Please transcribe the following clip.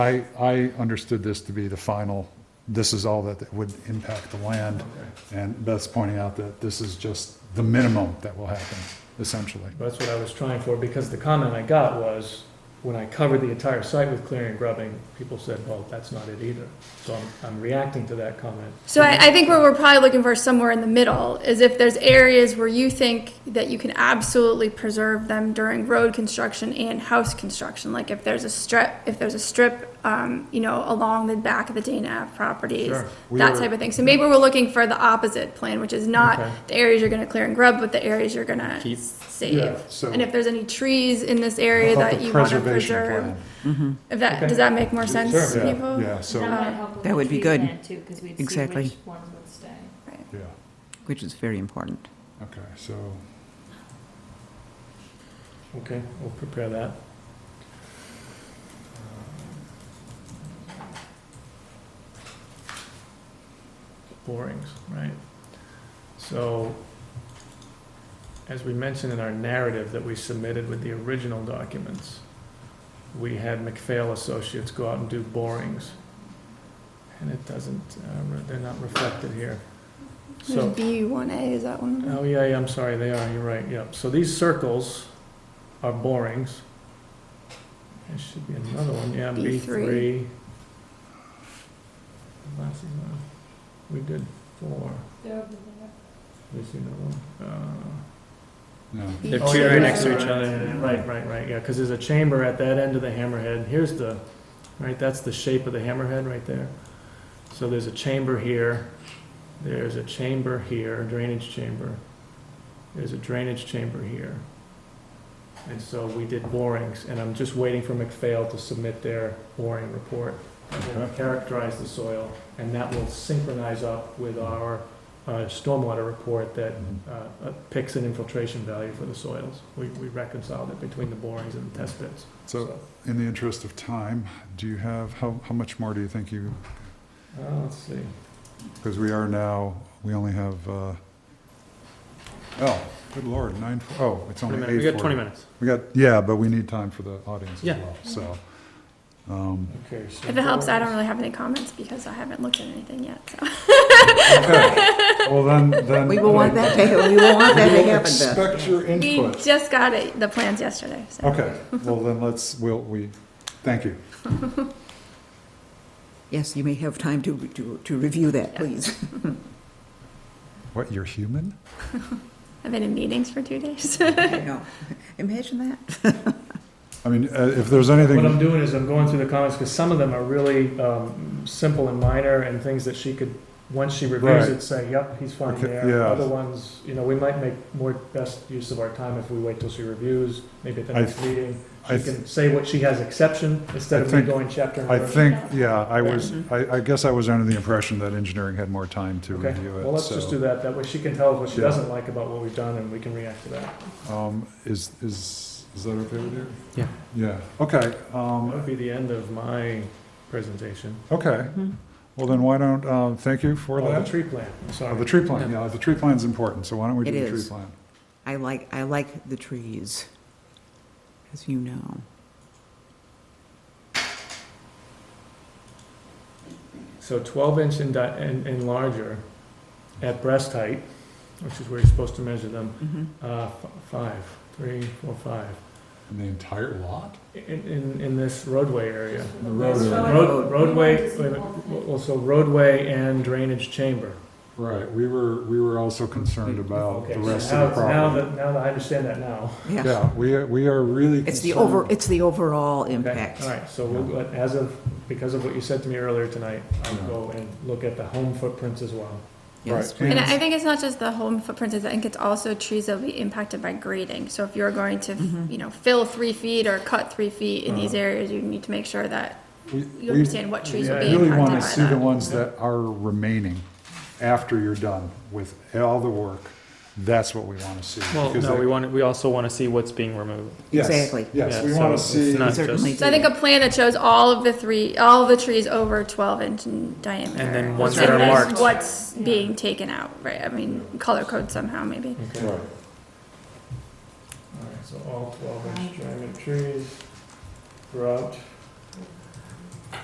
I, I understood this to be the final, this is all that would impact the land. And Beth's pointing out that this is just the minimum that will happen, essentially. That's what I was trying for, because the comment I got was, when I covered the entire site with clearing and grubbing, people said, well, that's not it either. So I'm, I'm reacting to that comment. So I, I think what we're probably looking for somewhere in the middle is if there's areas where you think that you can absolutely preserve them during road construction and house construction, like if there's a strip, if there's a strip, um, you know, along the back of the Dana Ave properties, Sure. We that were- type of thing. So maybe we're looking for the opposite plan, which is Okay. not the areas you're gonna clear and grub, but the areas you're gonna Keep. Yeah, save. so- And if there's any trees in this area About that the you wanna preservation preserve, plan. if that, Okay. does that make more sense Sure. to Yeah, people? Yeah, That so, might help with That the would be tree good. plan too, because we'd see Exactly. which ones would stay. yeah, which is very important. okay, so, Okay, we'll prepare that. Borings, right. So, as we mentioned in our narrative that we submitted with the original documents, we had McPhail Associates go out and do borings. And it doesn't, uh, re- they're not reflected here. So. There's B one A, is that one? of them? Oh, yeah, yeah, I'm sorry, they are, you're right, yep. So these circles are borings. There should be another one, yeah, B B3. three. Last is on, we did four, They're over there. we see another one. Uh, no. They're oh, two yeah, right yeah, next to yeah, each yeah, other. yeah, Right, right, right, yeah, because there's a chamber at that end of the hammerhead, here's the, right, that's the shape of the hammerhead right there. So there's a chamber here, there's a chamber here, drainage chamber, there's a drainage chamber here. And so we did borings, and I'm just waiting for McPhail to submit their boring report. that will Okay. Characterize the soil, and that will synchronize up with our uh, stormwater report that uh, uh, picks an infiltration value for the soils. We we reconciled it between the borings and the test pits. So, in the interest of time, do you have, how, how much more do you think you, Uh, Let's see, because we are now, we only have, uh, oh, good lord, nine, oh, it's only eight forty. minutes. We got, yeah, but we need time for the audience as Yeah. well, so. Mm-hmm. um, okay. so If it helps, I don't borings. really have any comments because I haven't looked at anything yet, so. okay. Well, then, then. We will want that to, we will want that to We'll happen, Beth. Expect your We input. just got it, the plans yesterday, so. Okay, well, then let's, we'll, we, thank you. Yes, you may have time to, to, to review that, please. What, you're human? I've been in meetings for two days. I know. Imagine that. I mean, uh, if there's What I'm anything, doing is I'm going through the comments, because some of them are really um, simple and minor, and things that she could, once she reviews Right. it, say, yep, he's fine Okay, there. yeah. Other ones, you know, we might make more best use of our time if we wait till she reviews, maybe at the I next meeting. I, She th- can say what she has exception, instead I of me think- going chapter and I verse. think, yeah, I was, Mhm. I, I guess I was under the impression that engineering had more time to Mm-hmm. Okay, review it. well, let's just do So, that, that way she can tell us what she Yeah. doesn't like about what we've done, and we can react to that. um, is, is, is that okay with you? Yeah. Yeah, okay, That um, would be the end of my presentation. okay. Mm-hmm. Well, then why don't, uh, thank you for Oh, that. the tree plan, I'm Uh, sorry. The tree plan, yeah, the tree plan's important, so why don't we do It the tree is. plan? I like, I like the trees, as you know. So 12 inch and, di- and, and larger at breast height, which is where you're supposed to measure them, Mhm. uh, f- five, three, four, five, And the entire lot? in, in, in this roadway area. The road area. Road, roadway, wait a minute, well, so roadway and drainage chamber. Right, we were, we were also concerned about Okay, the so rest now- of the Now property. that, now that I understand that now. Yeah. Yeah, we, are- we are really It's the over, concerned. it's the overall Okay, impact. All right, so we'll, go- as of, because of what you said to me earlier tonight, I'll Yeah. go and look at the home footprints as well. Yes, Right. And I I think it's not just the home footprints, I think it's also trees that'll be impacted by grading. So if you're going to, Mm-hmm. you know, fill three feet or cut three feet in these areas, you need to make sure that We- you Uh-huh. we- understand what trees will Yeah, be I really want to impacted see the by that. ones that are remaining after you're done with all the work. That's what we want to see. Well, because no, they- we want, we also want to see what's being removed. Yes, Exactly. Yes, Yeah, we want to so it's see, not Certainly just- So I think a plan that shows all of the three, all of the trees over twelve inch in diameter. And then ones once that are marked. What's being taken out, right? I mean, color code somehow, maybe. Okay. right, All right, so all twelve inch diameter trees throughout